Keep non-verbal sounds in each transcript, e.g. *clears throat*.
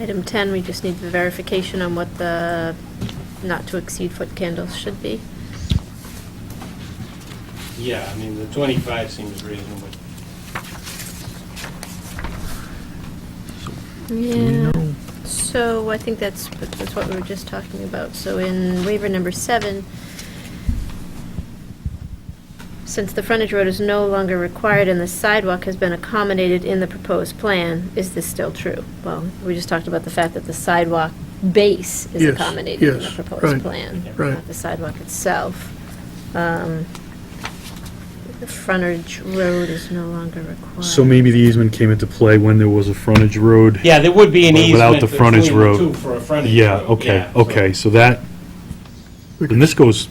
Item 10, we just need the verification on what the not-to-exceed foot candles should be. Yeah, I mean, the 25 seems reasonable. Yeah. So I think that's, that's what we were just talking about. So in waiver number seven, since the frontage road is no longer required and the sidewalk has been accommodated in the proposed plan, is this still true? Well, we just talked about the fact that the sidewalk base is Yes, accommodated in the yes, proposed right, plan, right. not the sidewalk itself. Um, The frontage road is no longer required. So maybe the easement came into play when there was a frontage road? Yeah, there would be an But without easement the between frontage the road. two for a frontage road. Yeah, okay, yeah, so- okay, so that, and this goes,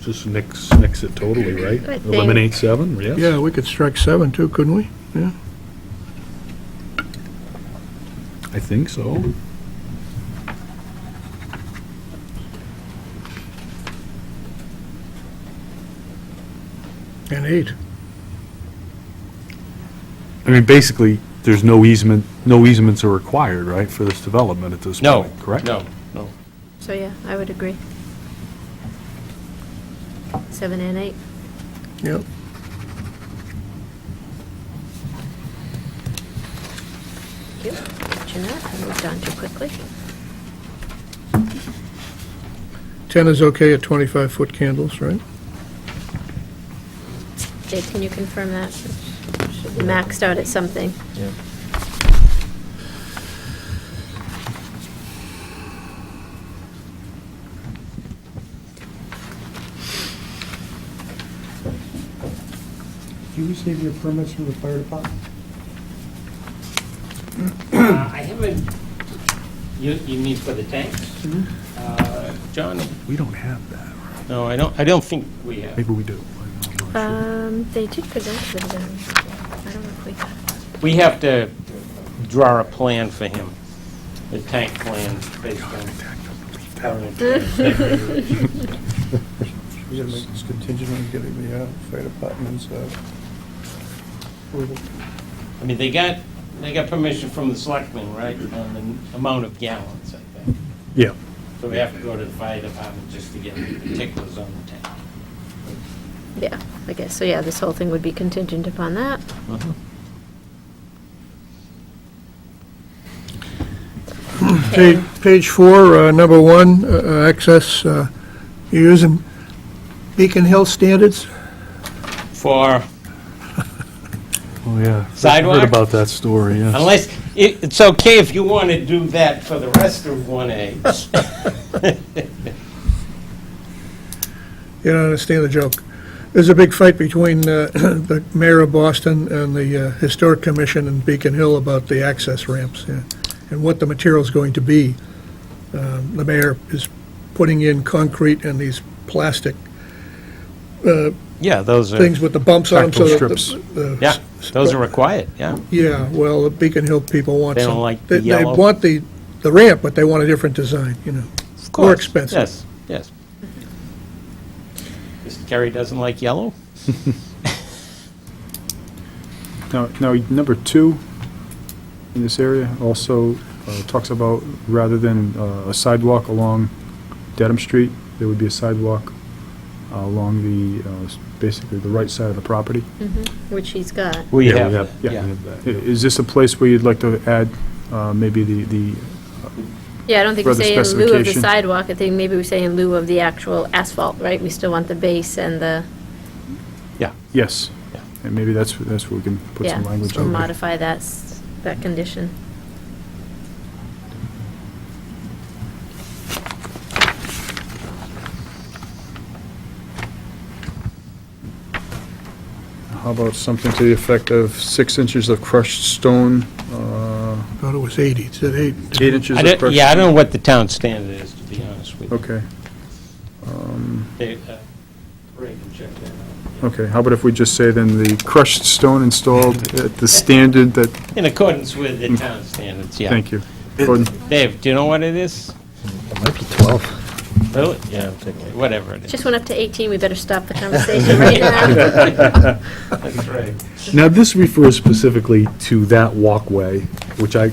just nicks, nicks it totally, right? I think- Eliminate seven, yes? Yeah, we could strike seven too, couldn't we? Yeah. I think so. And eight. I mean, basically, there's no easement, no easements are required, right, for this development at this No, point, correct? no, no. So, yeah, I would agree. Seven and eight. Yep. Thank you. Jeanette, I moved on too quickly. 10 is okay at 25-foot candles, right? Dave, can you confirm that? Should be Maxed out at something. Do you receive your permits from the fire department? Uh, I haven't, you, you mean for the tanks? Mm-hmm. Uh, John, We don't have that, right? no, I don't, I don't think we have. maybe we do. I'm not sure. Um, they did present to the design. I don't know if we got We have to draw a plan for him, the tank plan based on current. *laughs* We gotta make this contingent on getting the uh, fire department's uh, approval. I mean, they got, they got permission from the selectmen, right, on the amount of gallons, I think. Yeah, So we have to go to the fire department just to get the particulars on the tank. Yeah, I guess, so yeah, this whole thing would be contingent upon that. Page, page four, uh, number one, uh, uh, access, uh, you using Beacon Hill standards? For, oh, *laughs* yeah. Sidewalk? Heard about that story, yes. unless, it, it's okay if you want to do that for the rest of 1A. You don't understand the joke. There's a big fight between uh, *clears throat* the mayor of Boston and the uh, Historic Commission in Beacon Hill about the access ramps yeah, and what the material's going to be. Um, The mayor is putting in concrete and these plastic *laughs* Yeah, those things with the bumps on them. so Tactile that the- strips. the- Yeah, those are required, yeah. Yeah, well, the Beacon Hill people want They some. don't like the they- yellow. They want the, the ramp, but they want a different design, you know. Of More course. expensive. Yes, yes. Mr. Kerry doesn't like yellow? Now, now, number two in this area also uh, talks about, rather than uh, a sidewalk along Dedham Street, there would be a sidewalk uh, along the, uh, s- basically the right side of the property. Which he's got. We Yeah, have, that, yeah, yeah. we have that. I- Is this a place where you'd like to add uh, maybe the, the, Yeah, I don't think we Further say in lieu of the specification. sidewalk, I think maybe we say in lieu of the actual asphalt, right? We still want the base and the, yes? Yeah. And maybe that's, that's where we can put yeah, some language so on it. modify that, s- that condition. How about something to the effect of six inches of crushed stone, uh, I Thought it was 80, it said 80. eight inches I of crushed? don't- Yeah, I don't know what the town standard is, to be honest with you. Okay. Um, They, uh, Ray can check that out. Okay, how about if we just say then the crushed stone installed at the standard that, In accordance with the town standards, yeah. thank you. Gordon, Dave, do you know what it is? It might be 12. Really? Yeah, I'm thinking. Whatever it is. Just went up to 18, we better stop the conversation right now. That's right. Now, this refers specifically to that walkway, which I